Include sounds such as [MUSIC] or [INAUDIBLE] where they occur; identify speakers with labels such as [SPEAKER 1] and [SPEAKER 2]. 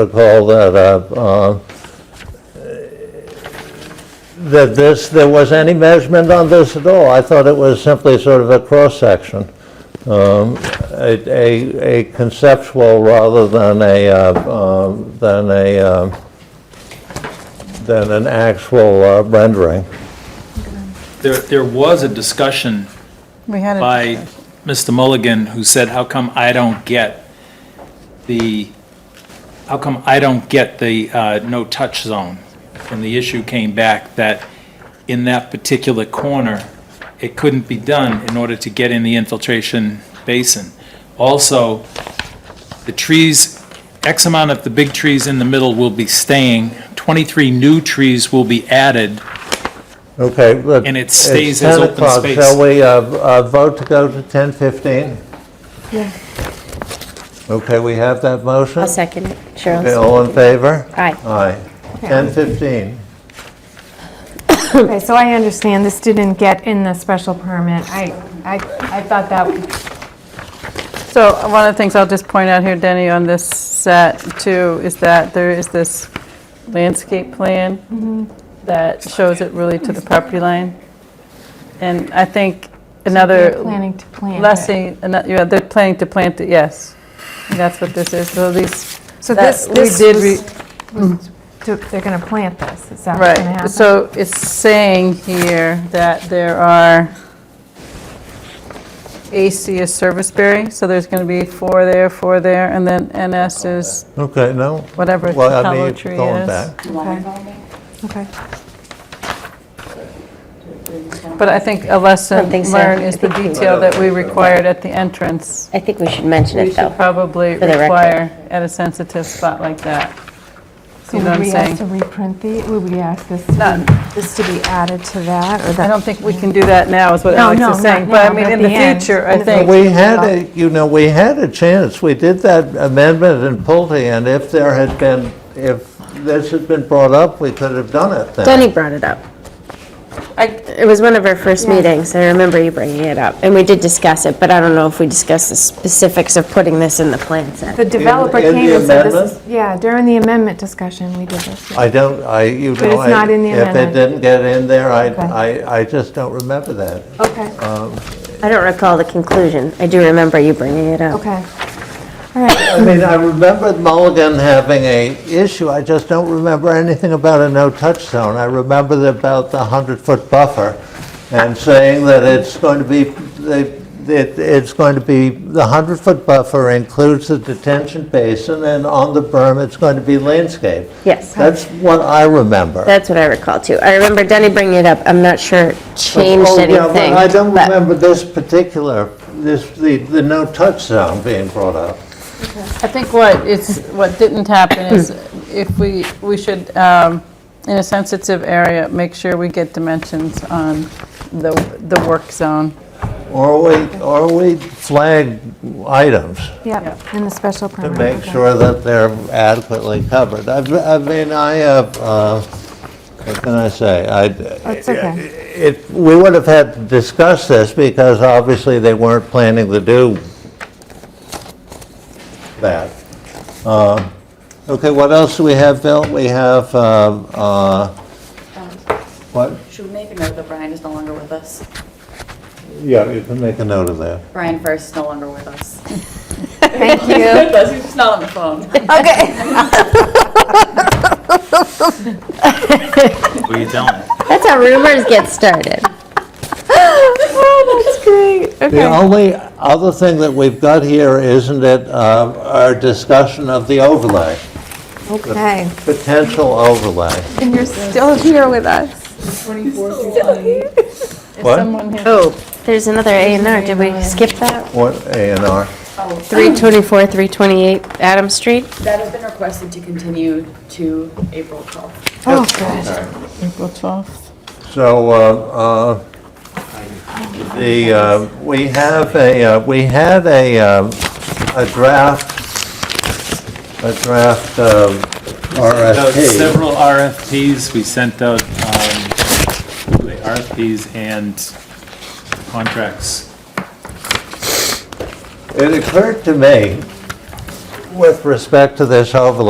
[SPEAKER 1] recall that, uh, uh, that this, there was any measurement on this at all. I thought it was simply sort of a cross-section, um, a- a a conceptual rather than a, uh, um, than a, um, than an actual uh, rendering.
[SPEAKER 2] There, there was a discussion
[SPEAKER 3] We had
[SPEAKER 2] by
[SPEAKER 3] a,
[SPEAKER 2] Mr. Mulligan who said, how come I don't get the, how come I don't get the uh, no-touch zone? And the issue came back that in that particular corner, it couldn't be done in order to get in the infiltration basin. Also, the trees, X amount of the big trees in the middle will be staying, 23 new trees will be added,
[SPEAKER 1] Okay, but.
[SPEAKER 2] And it
[SPEAKER 1] it's
[SPEAKER 2] stays as
[SPEAKER 1] 10
[SPEAKER 2] open
[SPEAKER 1] o'clock.
[SPEAKER 2] space.
[SPEAKER 1] Shall we uh, uh, vote to go to 10:15?
[SPEAKER 4] Yeah.
[SPEAKER 1] Okay, we have that motion?
[SPEAKER 4] I'll second it.
[SPEAKER 1] Okay,
[SPEAKER 4] Cheryl,
[SPEAKER 1] all in favor?
[SPEAKER 4] Aye.
[SPEAKER 1] Aye. 10:15.
[SPEAKER 5] Okay, so I understand this didn't get in the special permit. I, I, I thought that,
[SPEAKER 3] so one of the things I'll just point out here, Denny, on this set too, is that there is this landscape plan
[SPEAKER 5] Mm-hmm.
[SPEAKER 3] that shows it really to the property line. And I think
[SPEAKER 5] they're
[SPEAKER 3] another
[SPEAKER 5] planning to plant. it.
[SPEAKER 3] lesson, ano- yeah, they're planning to plant it, yes. And That's what this is, so these,
[SPEAKER 5] So
[SPEAKER 3] that
[SPEAKER 5] this,
[SPEAKER 3] we
[SPEAKER 5] this
[SPEAKER 3] did
[SPEAKER 5] was-
[SPEAKER 3] re-
[SPEAKER 5] was, to- they're going to plant this, is that what's going to happen?
[SPEAKER 3] right, so it's saying here that there are AC is Serviceberry, so there's going to be four there, four there, and then NS is
[SPEAKER 1] Okay, no?
[SPEAKER 3] whatever
[SPEAKER 1] Well, I
[SPEAKER 3] hollow
[SPEAKER 1] mean,
[SPEAKER 3] tree
[SPEAKER 1] going
[SPEAKER 3] is.
[SPEAKER 1] back.
[SPEAKER 5] Okay.
[SPEAKER 3] But I think a lesson
[SPEAKER 4] Something so.
[SPEAKER 3] learned is
[SPEAKER 4] I
[SPEAKER 3] the
[SPEAKER 4] think we-
[SPEAKER 3] detail that we required at the entrance.
[SPEAKER 4] I think we should mention
[SPEAKER 3] We
[SPEAKER 4] it,
[SPEAKER 3] should
[SPEAKER 4] though.
[SPEAKER 3] probably
[SPEAKER 4] for the record.
[SPEAKER 3] require at a sensitive spot like that.
[SPEAKER 5] So
[SPEAKER 3] You know what
[SPEAKER 5] would
[SPEAKER 3] I'm
[SPEAKER 5] we ask to
[SPEAKER 3] saying?
[SPEAKER 5] reprint the, would we ask this, to be- this to be added to that, or that?
[SPEAKER 3] I don't think we can do that now, is what
[SPEAKER 5] No,
[SPEAKER 3] Alex
[SPEAKER 5] no,
[SPEAKER 3] is saying.
[SPEAKER 5] not
[SPEAKER 3] But I
[SPEAKER 5] now,
[SPEAKER 3] mean,
[SPEAKER 5] but
[SPEAKER 3] in
[SPEAKER 5] at
[SPEAKER 3] the
[SPEAKER 5] the end.
[SPEAKER 3] future, I
[SPEAKER 5] In the
[SPEAKER 3] think.
[SPEAKER 1] We had a, you know, we had a chance. We did that amendment in Pulte, and if there had been, if this had been brought up, we could have done it then.
[SPEAKER 4] Denny brought it up. I- It was one of our first meetings, I remember you bringing it up, and we did discuss it, but I don't know if we discussed the specifics of putting this in the plan set.
[SPEAKER 5] The developer
[SPEAKER 1] in the
[SPEAKER 5] came and said this
[SPEAKER 1] amendment?
[SPEAKER 5] is, yeah, during the amendment discussion, we did this. yeah.
[SPEAKER 1] I don't, I, you know.
[SPEAKER 5] But it's
[SPEAKER 1] I-
[SPEAKER 5] not in the
[SPEAKER 1] If it
[SPEAKER 5] amendment.
[SPEAKER 1] didn't get in there, I,
[SPEAKER 5] Okay.
[SPEAKER 1] I, I just don't remember that.
[SPEAKER 5] Okay,
[SPEAKER 4] I don't recall the conclusion, I do remember you bringing it up.
[SPEAKER 5] okay. All right,
[SPEAKER 1] I mean, I remember Mulligan having a issue, I just don't remember anything about a no-touch zone. I remember about the 100-foot buffer and saying that it's going to be, they- it- it's going to be, the 100-foot buffer includes the detention basin, and on the berm, it's going to be landscaped.
[SPEAKER 4] Yes.
[SPEAKER 1] That's what I remember.
[SPEAKER 4] That's what I recall, too. I remember Denny bringing it up, I'm not sure it changed
[SPEAKER 1] Oh, yeah, but
[SPEAKER 4] anything.
[SPEAKER 1] I don't
[SPEAKER 4] but-
[SPEAKER 1] remember this particular, this, the the no-touch zone being brought up.
[SPEAKER 3] I think what it's, what didn't happen
[SPEAKER 5] [COUGHS]
[SPEAKER 3] is if we, we should, um, in a sensitive area, make sure we get dimensions on the, the work zone.
[SPEAKER 1] Or we, or we flag items
[SPEAKER 5] yeah, in the special
[SPEAKER 1] to
[SPEAKER 5] permit.
[SPEAKER 1] make
[SPEAKER 5] okay.
[SPEAKER 1] sure that they're adequately covered. I I mean, I have, uh, what can I say? I-
[SPEAKER 5] That's okay.
[SPEAKER 1] It, we would have had to discuss this because obviously they weren't planning to do that. Uh, Okay, what else do we have, Bill? We have, uh, uh, what?
[SPEAKER 6] Should we make a note that Brian is no longer with us?
[SPEAKER 1] Yeah, you can make a note of that.
[SPEAKER 6] Brian First is no longer with us.
[SPEAKER 5] [LAUGHS] Thank
[SPEAKER 6] He's
[SPEAKER 5] you.
[SPEAKER 6] with us, [LAUGHS] he's just not on the phone.
[SPEAKER 2] we don't.
[SPEAKER 4] That's how rumors get started.
[SPEAKER 1] The only other thing that we've got here, isn't it, uh, our discussion of the overlay,
[SPEAKER 5] Okay,
[SPEAKER 1] potential overlay.
[SPEAKER 5] and you're still here with us.
[SPEAKER 1] What?
[SPEAKER 4] Oh, there's another A and R, did we skip that?
[SPEAKER 1] What A and R?
[SPEAKER 4] 324, 328 Adam Street?
[SPEAKER 6] That has been requested to continue to April 12th.
[SPEAKER 5] Oh, good.
[SPEAKER 3] April 12th.
[SPEAKER 1] So, uh, uh, the, uh, we have a, uh, we had a, um, a draft, a draft uh,
[SPEAKER 2] Out
[SPEAKER 1] RFP.
[SPEAKER 2] Several RFPs, we sent out um, the RFPs and contracts.
[SPEAKER 1] It occurred to me, with respect to this overlay